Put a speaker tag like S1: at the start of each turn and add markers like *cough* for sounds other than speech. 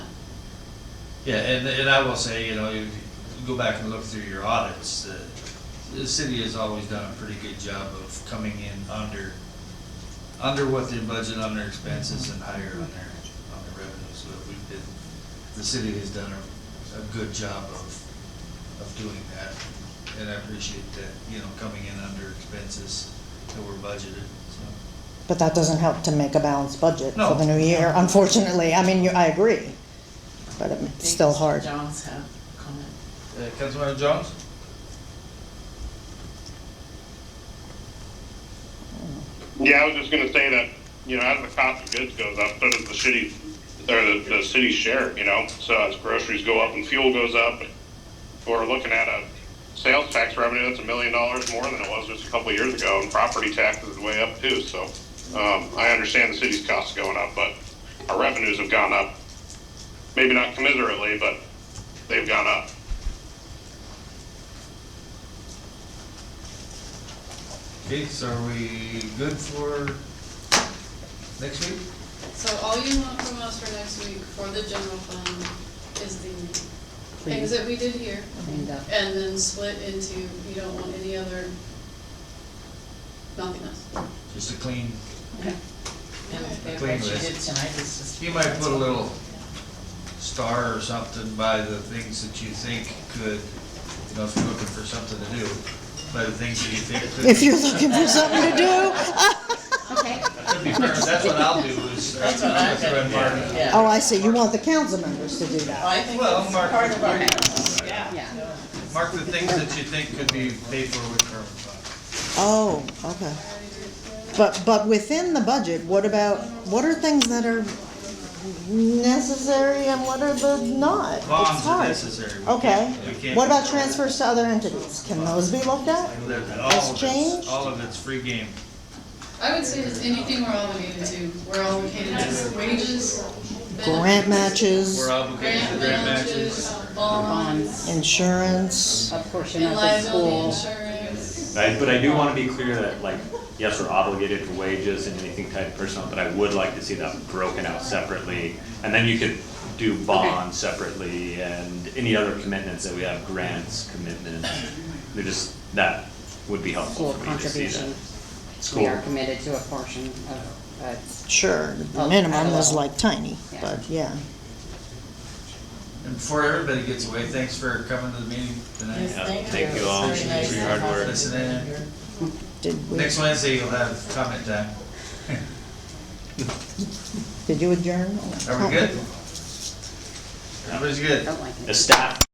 S1: Yeah, and, and I will say, you know, if you go back and look through your audits, the, the city has always done a pretty good job of coming in under, under what their budget, on their expenses, and higher on their, on their revenues. So we've been, the city has done a, a good job of, of doing that. And I appreciate that, you know, coming in under expenses that were budgeted, so.
S2: But that doesn't help to make a balanced budget for
S1: No.
S2: the new year, unfortunately. I mean, you- I agree, but it's still hard.
S3: John's have comment.
S1: Uh, Councilmember Jones?
S4: Yeah, I was just gonna say that, you know, as the cost of goods goes up, so does the city, or the, the city's share, you know? So as groceries go up and fuel goes up, we're looking at a sales tax revenue that's a million dollars more than it was just a couple of years ago, and property taxes are way up too, so. Um, I understand the city's costs going up, but our revenues have gone up. Maybe not commiserately, but they've gone up.
S1: Okay, so are we good for next week?
S5: So all you want from us for next week for the general fund is the things that we did here,
S3: Cleaned up.
S5: and then split into, you don't want any other, nothing else.
S1: Just a clean,
S3: And
S5: Okay.
S3: what
S1: Clean
S3: you
S1: list.
S3: did tonight is just.
S1: you might put a little star or something by the things that you think could, you know, if you're looking for something to do, by the things that you think
S2: If
S1: could,
S2: you're looking for something to do,
S3: Okay.
S1: could be part, that's what I'll do is, that's
S3: That's
S1: what
S3: what
S1: i
S3: I'm gonna do, yeah.
S2: oh, I see, you want the council members to do
S3: Well,
S2: that.
S3: Oh, I think
S1: Well,
S3: it's
S1: Mark-
S3: part of our house, yeah. Yeah.
S1: Mark the things that you think could be paid for with current fund.
S2: Oh, okay. But, but within the budget, what about, what are things that are necessary and what are the not? It's
S1: Bonds are
S2: hard.
S1: necessary. We
S2: Okay,
S1: can't- we can't-
S2: what about transfers to other entities? Can those be looked at?
S1: All of it's,
S2: changed?
S1: all of it's free game.
S5: I would say just anything we're obligated to, we're obligated to wages,
S2: Grant
S5: benefits,
S2: matches,
S1: We're obligated to
S5: grant
S1: grant matches.
S5: matches, bonds,
S2: insurance,
S3: A portion
S5: and
S3: of the
S5: liability
S3: school.
S5: insurance.
S6: I- But I do want to be clear that, like, yes, we're obligated to wages and anything tied to personnel, but I would like to see that broken out separately. And then you could do bonds separately and any other commitments that we have, grants, commitments. They're just, that would be helpful
S7: School
S6: for me to see that.
S7: contribution. We
S6: School.
S7: are committed to a portion of, uh,
S2: sure, the
S7: Oh,
S2: minimum is
S7: at a level.
S2: like tiny, but yeah.
S1: And before everybody gets away, thanks for coming to the meeting tonight.
S3: Yes, thank you.
S6: Thank you all
S3: It's very nice
S6: for
S3: to
S6: your hard
S3: have
S6: work.
S3: you
S1: Listening.
S3: here.
S2: Did we,
S1: Next Wednesday, you'll have comment time.
S2: did you adjourn? *laughs*
S1: Are we good? Everybody's good?
S7: don't like it.
S6: The staff